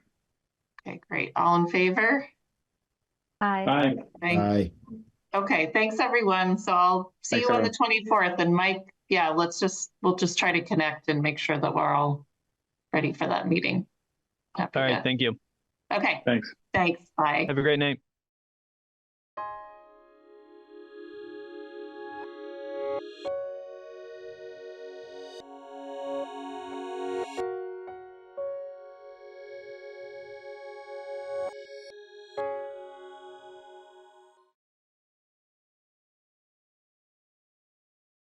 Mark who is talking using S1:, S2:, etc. S1: Okay, great. All in favor?
S2: Aye.
S3: Aye.
S1: Thank-
S4: Aye.
S1: Okay, thanks, everyone. So I'll see you
S3: Thanks,
S1: on the twenty-fourth and Mike, yeah, let's just, we'll just try to connect and make sure that we're all ready for that meeting. After
S5: All right.
S1: that.
S5: Thank you.
S1: Okay,
S3: Thanks.
S1: thanks. Bye.
S5: Have a great night.